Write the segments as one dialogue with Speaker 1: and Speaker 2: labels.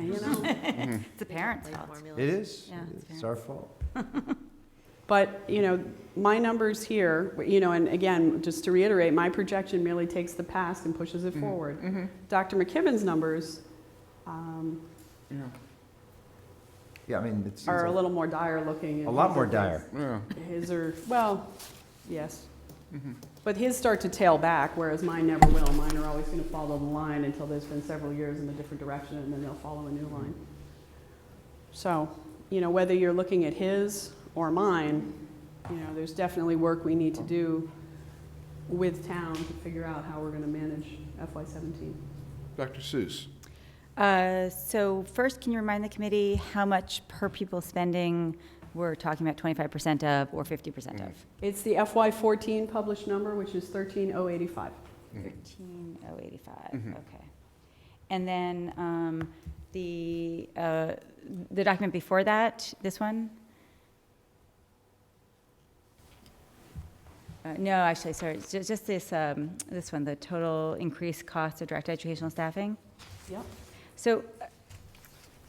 Speaker 1: you know?
Speaker 2: It's the parents' fault.
Speaker 3: It is.
Speaker 2: Yeah, it's
Speaker 3: It's
Speaker 2: fair.
Speaker 3: our fault.
Speaker 1: But, you know, my numbers here, you know, and again, just to reiterate, my projection merely takes the past and pushes it
Speaker 3: Mm-hmm.
Speaker 1: forward. Dr. McKibben's numbers um,
Speaker 3: Yeah, I mean, it's.
Speaker 1: are a
Speaker 3: it's
Speaker 1: little more dire looking. and
Speaker 3: A lot
Speaker 1: his
Speaker 3: more
Speaker 1: are-
Speaker 3: dire.
Speaker 4: Yeah, Mm-hmm.
Speaker 1: His are, well, yes. But his start to tail back, whereas mine never will. Mine are always going to follow the line until there's been several years in a different direction, and then they'll follow a new line. So, you know, whether you're looking at his or mine, you know, there's definitely work we need to do with town to figure out how we're going to manage FY17.
Speaker 4: Dr. Seuss.
Speaker 2: Uh, So first, can you remind the committee how much per pupil spending we're talking about 25% of or 50% of?
Speaker 3: Mm.
Speaker 1: It's the FY14 published number, which is 13085.
Speaker 2: 13085,
Speaker 4: Mhm.
Speaker 2: okay. And then um, the, uh, the document before that, this one? Uh, No, actually, sorry, it's ju- just this, um, this one, the total increased cost of direct educational staffing.
Speaker 1: Yep.
Speaker 2: So uh,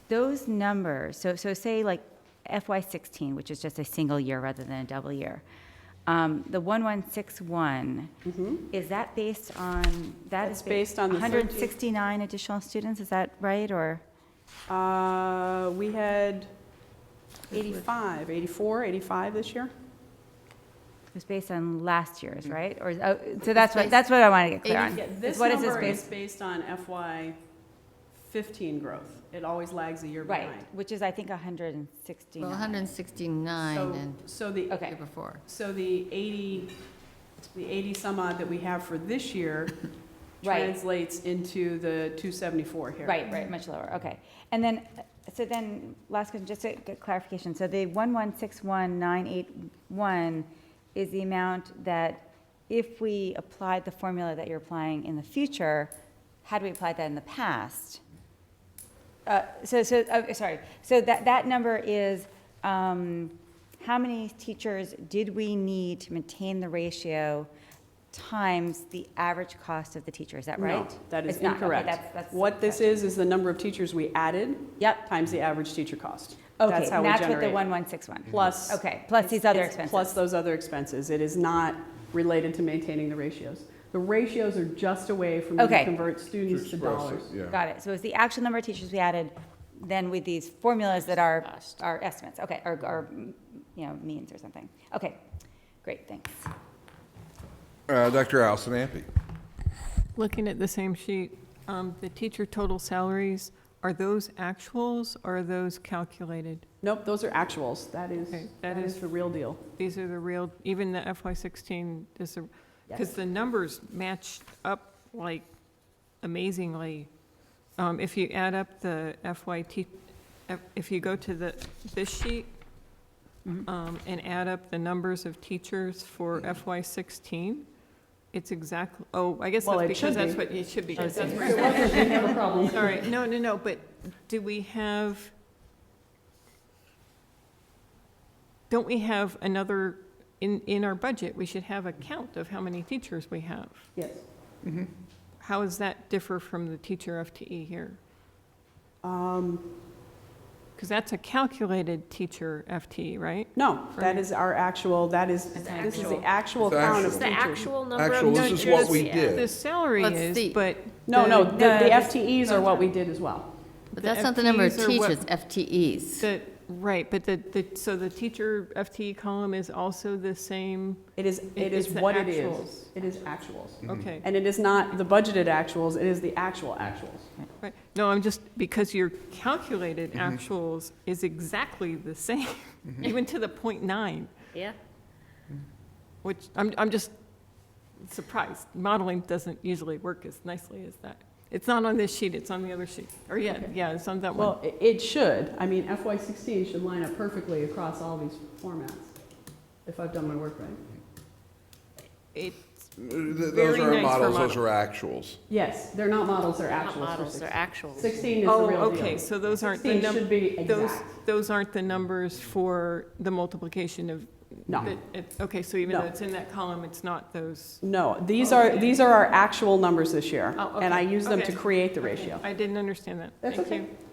Speaker 2: those numbers, so, so say like FY sixteen, which is just a single year rather than a double year. Um, the one one six one,
Speaker 1: Mm-hmm.
Speaker 2: is that based on, that
Speaker 1: That's
Speaker 2: is
Speaker 1: based on the
Speaker 2: One hundred sixty-nine additional students, is that right, or?
Speaker 1: Uh, We had 85, 84, 85 this year?
Speaker 2: It was based on last
Speaker 1: Mm-hmm.
Speaker 2: year's, right? Or, oh, so that's what, that's what I want to get clear on.
Speaker 1: Yeah, This
Speaker 2: What is this
Speaker 1: number is
Speaker 2: based?
Speaker 1: based on FY15 growth. It always lags a year
Speaker 2: Right,
Speaker 1: behind.
Speaker 2: which is, I think, hundred and sixty-nine.
Speaker 5: Well, 169
Speaker 1: So-
Speaker 5: and
Speaker 1: So the,
Speaker 5: the
Speaker 2: Okay,
Speaker 5: year before.
Speaker 1: so the 80, the 80 some odd that we have for this year
Speaker 2: Right.
Speaker 1: translates into the 274 here.
Speaker 2: Right, right, much lower, okay. And then, uh, so then, last question, just a good clarification. So the 1161981 is the amount that if we applied the formula that you're applying in the future, had we applied that in the past? Uh, So, so, oh, sorry, so that, that number is, um, how many teachers did we need to maintain the ratio times the average cost of the teacher, is that
Speaker 1: No,
Speaker 2: right?
Speaker 1: That is
Speaker 2: It's not. Okay, that's-
Speaker 1: incorrect.
Speaker 2: that's-
Speaker 1: What this is, is the number of teachers we added
Speaker 2: Yep,
Speaker 1: times the average teacher cost.
Speaker 2: Okay,
Speaker 1: That's how
Speaker 2: and
Speaker 1: we
Speaker 2: that's what
Speaker 1: generate
Speaker 2: the
Speaker 1: it.
Speaker 2: one one six one.
Speaker 1: Plus.
Speaker 2: Okay, plus these
Speaker 1: It's-
Speaker 2: other
Speaker 1: it's
Speaker 2: expenses.
Speaker 1: Plus those other expenses. It is not related to maintaining the ratios. The ratios are just a way for me to
Speaker 2: Okay.
Speaker 1: convert students to
Speaker 4: express
Speaker 1: dollars.
Speaker 4: it, Yeah.
Speaker 2: Got it. So it's the actual number of teachers we added, then with these formulas that are, are estimates, okay, or, or, mm, you know, means or something. Okay, great, thanks.
Speaker 4: Uh, Dr. Allison Ampe.
Speaker 6: Looking at the same sheet, um, the teacher total salaries, are those actuals or are those calculated?
Speaker 1: Nope, those are actuals. That is,
Speaker 6: Okay, that
Speaker 1: that is
Speaker 6: is- Oh,
Speaker 1: the real deal.
Speaker 6: These are the real, even the FY sixteen is, because the numbers matched up like amazingly. Um, if you add up the FY te- if- if you go to the, this sheet,
Speaker 1: Mm-hmm.
Speaker 6: um, and add up the numbers of teachers for FY sixteen, it's exactly, oh, I guess
Speaker 1: Well,
Speaker 6: that's
Speaker 1: it should
Speaker 6: because
Speaker 1: be.
Speaker 6: that's
Speaker 1: Oh,
Speaker 6: what it should be, because that's where
Speaker 1: No problem.
Speaker 6: All right, no, no, no, but do we have, don't we have another, in, in our budget, we should have a count of how many teachers we have.
Speaker 1: Yes.
Speaker 6: How does that differ from the teacher FTE here?
Speaker 1: Um,
Speaker 6: Because that's a calculated teacher FTE, right?
Speaker 1: No, that is our actual, that is,
Speaker 2: It's
Speaker 1: this is the
Speaker 2: actual.
Speaker 1: actual
Speaker 4: It's
Speaker 1: count
Speaker 4: actual.
Speaker 1: of
Speaker 4: It's
Speaker 1: teachers.
Speaker 4: the
Speaker 7: number
Speaker 4: Actually, this is what we
Speaker 6: The
Speaker 4: did.
Speaker 6: salary
Speaker 5: Let's see.
Speaker 6: is, but.
Speaker 1: No, no,
Speaker 6: the-
Speaker 1: the
Speaker 2: No,
Speaker 1: the
Speaker 2: this-
Speaker 1: FTEs are what we did as well.
Speaker 5: But that's not the number of
Speaker 6: FTEs are what-
Speaker 5: teachers, FTEs.
Speaker 6: The, right, but the, the, so the teacher FTE column is also the same,
Speaker 1: It is, it
Speaker 6: It-
Speaker 1: is
Speaker 6: it's the
Speaker 1: what it is.
Speaker 6: actuals.
Speaker 1: It is actuals.
Speaker 6: okay.
Speaker 1: And it is not the budgeted actuals, it is the actual actuals.
Speaker 6: Right, no, I'm just, because your calculated
Speaker 1: Mm-hmm.
Speaker 6: actuals is exactly the same, even to the point nine,
Speaker 7: Yeah.
Speaker 6: which, I'm, I'm just surprised. Modeling doesn't usually work as nicely as that. It's not on this sheet, it's on the other sheet, or yeah, yeah, it's on that one.
Speaker 1: Well, i- it should. I mean, FY16 should line up perfectly across all these formats, if I've done my work right.
Speaker 6: It's,
Speaker 4: Th- th- Those
Speaker 6: Very
Speaker 4: are our
Speaker 6: nice for
Speaker 4: models, those
Speaker 6: model.
Speaker 4: are actuals.
Speaker 1: Yes, they're not models, they're
Speaker 7: Not
Speaker 1: actuals. for
Speaker 7: models, they're
Speaker 1: 16.
Speaker 7: actuals.
Speaker 1: 16 is the
Speaker 6: oh,
Speaker 1: real deal.
Speaker 6: okay, so those aren't the
Speaker 1: 16 should
Speaker 6: numbers,
Speaker 1: be
Speaker 6: those,
Speaker 1: exact.
Speaker 6: those aren't the numbers for the multiplication of.
Speaker 1: No.
Speaker 6: the- it- Okay, so even though
Speaker 1: No.
Speaker 6: it's in that column, it's not those,
Speaker 1: No, these are, these are our actual numbers this year.
Speaker 6: Oh,
Speaker 1: And I
Speaker 6: okay,
Speaker 1: use them to
Speaker 6: okay.
Speaker 1: create the ratio.
Speaker 6: I didn't understand that.
Speaker 1: That's
Speaker 6: Thank
Speaker 1: okay.
Speaker 6: you.